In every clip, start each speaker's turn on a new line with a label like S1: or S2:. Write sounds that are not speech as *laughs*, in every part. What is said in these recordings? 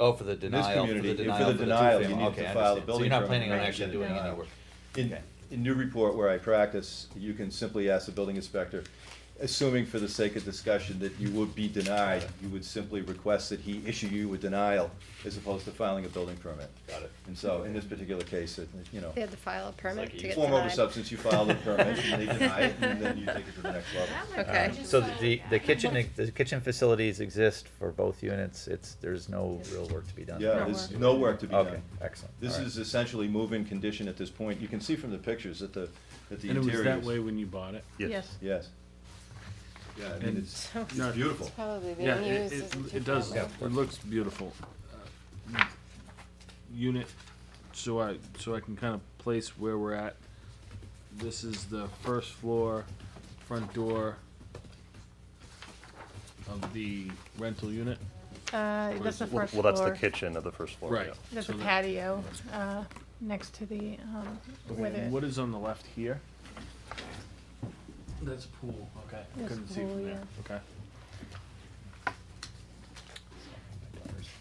S1: Oh, for the denial, for the
S2: community,
S1: denial.
S2: for the denial, you
S1: two-family.
S2: need to
S1: Okay, I
S2: file
S1: understand.
S2: the
S1: So
S2: building
S1: you're not
S2: permit
S1: planning on
S2: and
S1: actually
S2: the
S1: doing any
S2: denial.
S1: work.
S2: In,
S1: Okay.
S2: in Newburyport, where I practice, you can simply ask the building inspector, assuming for the sake of discussion that you would be denied, you would simply request that he issue you a denial as opposed to filing a building permit.
S1: Got it.
S2: And so, in this particular case, it, you know,
S3: They had to file a permit
S1: like
S3: to
S1: you-
S3: get
S2: form over
S3: denied.
S2: substance, you file the permit, and
S3: *laughs*
S2: they deny it, and then you take it to the next level.
S3: Okay.
S1: Just
S4: So the, the kitchen, the kitchen facilities exist for both units, it's, there's no real work to be done.
S2: Yeah,
S3: No
S2: there's
S3: work.
S2: no work to be done.
S4: Okay, excellent.
S2: This
S4: All right.
S2: is essentially move-in condition at this point. You can see from the pictures that the, that the
S5: And it was
S2: interior
S5: that
S2: is-
S5: way when you bought it?
S6: Yes.
S2: Yes. Yeah, I mean,
S5: And-
S2: it's,
S3: So-
S2: it's beautiful.
S3: Probably being
S5: Yeah,
S3: used
S5: it,
S3: as a
S5: it,
S3: two
S5: it does,
S3: family.
S5: it looks beautiful. Uh, Unit, so I, so I can kind of place where we're at. This is the first floor, front door of the rental unit.
S6: Uh,
S5: Or
S6: that's
S5: is
S6: the
S5: it-
S6: first
S7: Well, that's the
S6: floor.
S7: kitchen of the first floor.
S5: Right.
S7: yeah.
S6: There's
S5: So
S6: a
S5: that-
S6: patio, uh, next to the, um,
S5: Okay,
S6: where
S5: and
S6: the.
S5: What is on the left here? That's pool, okay.
S6: That's
S5: Couldn't see
S6: pool,
S5: from there,
S6: yeah.
S5: okay.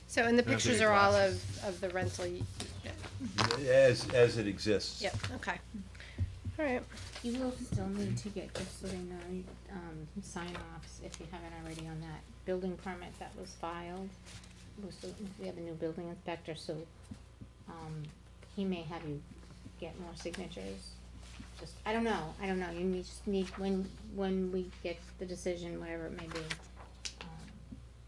S3: So, and the
S5: That's
S3: pictures
S5: what
S3: are all of,
S5: glasses.
S3: of the rental, y- yeah,
S2: As, as it exists.
S3: yep, okay. All right,
S8: You will still need to get, just so they know, um, sign offs, if you haven't already on that building permit that was filed. We're still- We have a new building inspector, so, um, he may have you get more signatures. Just, I don't know, I don't know, you need, just need, when, when we get the decision, whatever it may be. um,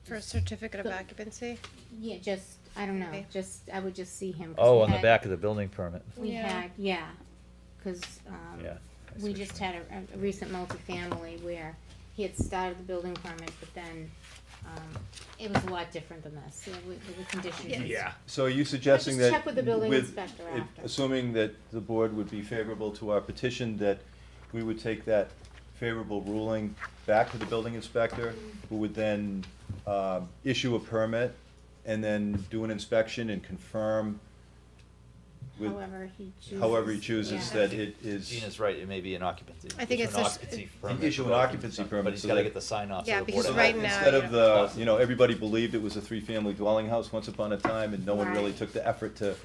S3: for a certificate of
S8: So-
S3: occupancy,
S8: Yeah, just, I don't know,
S3: Okay.
S8: just, I would just see him. 'cause
S4: Oh,
S8: we
S4: on the
S8: had-
S4: back of the building permit,
S8: We
S3: Yeah.
S8: had, yeah, cause, um,
S4: yeah. I see
S8: we
S4: what you
S8: just
S4: mean.
S8: had a, a recent multifamily where he had started the building permit, but then, um, it was a lot different than this, yeah, with, with the conditions.
S5: Yeah.
S2: So are you suggesting that?
S8: Just check with the building
S2: with-
S8: inspector
S2: if-
S8: after.
S2: Assuming that the board would be favorable to our petition, that we would take that favorable ruling back to the building inspector, who would then, um, issue a permit and then do an inspection and confirm with,
S8: However he chooses.
S2: however he chooses,
S8: yeah.
S2: that it is.
S1: Gina's right, it may be an occupancy.
S3: I think
S1: issue
S3: it's
S1: an
S3: a-
S1: occupancy permit.
S2: Issue an occupancy permit
S1: But he's
S2: so
S1: gotta
S2: that-
S1: get the sign off.
S3: Yeah,
S1: of the
S3: because
S1: board of
S2: So
S1: health.
S3: right
S2: that
S3: now,
S2: Instead
S3: you
S2: of
S1: know-
S2: the, you know, everybody believed it was a three-family dwelling house once upon a time, and no one really
S8: Right.
S2: took the effort to,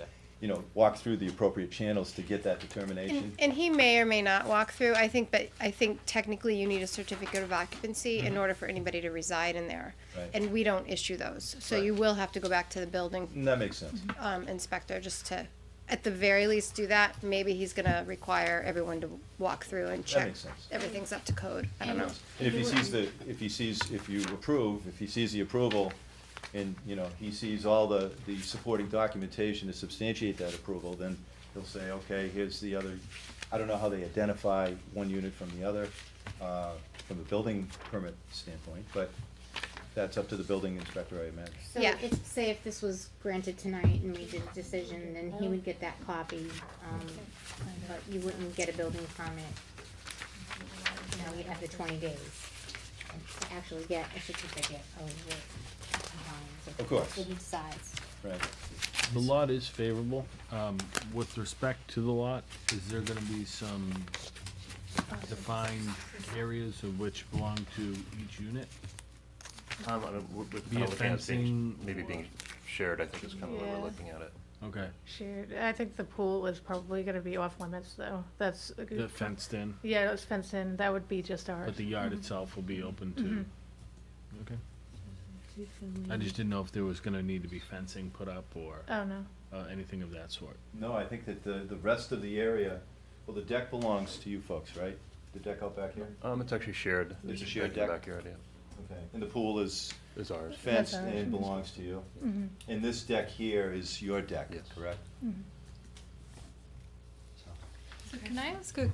S2: you know, walk through the appropriate channels to get that
S3: and,
S2: determination.
S3: and he may or may not walk through, I think, but I think technically you need a certificate of occupancy in order for anybody to reside in there.
S2: Right.
S3: And we don't issue those, so
S2: Right.
S3: you will have to go back to the building
S2: And that makes sense.
S3: um, inspector just to, at the very least, do that. Maybe he's gonna require everyone to walk through and check.
S2: makes sense.
S3: Everything's up to code. I don't know.
S2: And if he sees the, if he sees, if you approve, if he sees the approval, and, you know, he sees all the, the supporting documentation to substantiate that approval, then he'll say, okay, here's the other, I don't know how they identify one unit from the other, uh, from a building permit standpoint, but that's up to the building inspector, I imagine.
S8: So
S3: Yeah.
S8: if, say if this was granted tonight and we did a decision, then he would get that copy, um, but you wouldn't get a building permit. Now you'd have the twenty days to actually get a certificate of what compliance. if
S2: Of course.
S8: that's what he decides.
S2: Right.
S5: The lot is favorable. Um, with respect to the lot, is there gonna be some defined areas of which belong to each unit?
S7: Um, I don't- we're- we're
S5: Be
S7: kinda looking at it being-
S5: fencing
S7: Maybe being shared, I think is kind of the way
S6: Yeah.
S7: we're looking at it.
S5: Okay,
S6: Shoot, I think the pool is probably gonna be off limits though, that's. a good-
S5: the fenced in,
S6: Yeah, it was fenced in, that would be just ours.
S5: but the yard itself will be open to, okay? I just didn't know if there was gonna need to be fencing put up or,
S6: Oh, no,
S5: uh, anything of that sort.
S2: No, I think that the, the rest of the area, well, the deck belongs to you folks, right? The deck out back here?
S7: Um, it's actually shared.
S2: There's a shared
S7: in the
S2: deck.
S7: Backyard, yeah,
S2: Okay. And the pool is
S7: is ours.
S2: fenced
S6: That's ours.
S2: and belongs to you?
S6: Mhm.
S2: And this deck here is your deck,
S7: Yes.
S2: correct?
S6: Mm-hmm.
S9: So can I ask a,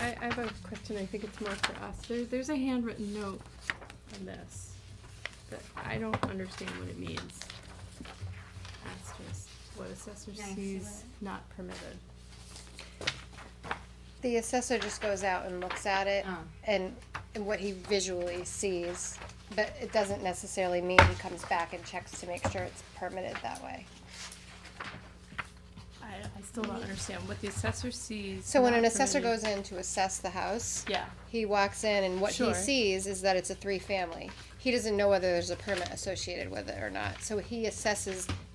S9: I, I have a question, I think it's more for us, there, there's a handwritten note on this, that I don't understand what it means. Asterisk, what assessor
S8: Can I see
S9: sees
S8: what
S9: not permitted.
S3: The assessor just goes out and looks at it
S8: Oh.
S3: and, and what he visually sees. But it doesn't necessarily mean he comes back and checks to make sure it's permitted that way.
S9: I, I still don't understand what the assessor sees.
S3: So when
S9: not
S3: an assessor
S9: permitted.
S3: goes in to assess the house,
S9: Yeah,
S3: he walks in and what he
S9: Sure.
S3: sees is that it's a three-family. he doesn't know whether there's a permit associated with it or not, so he assesses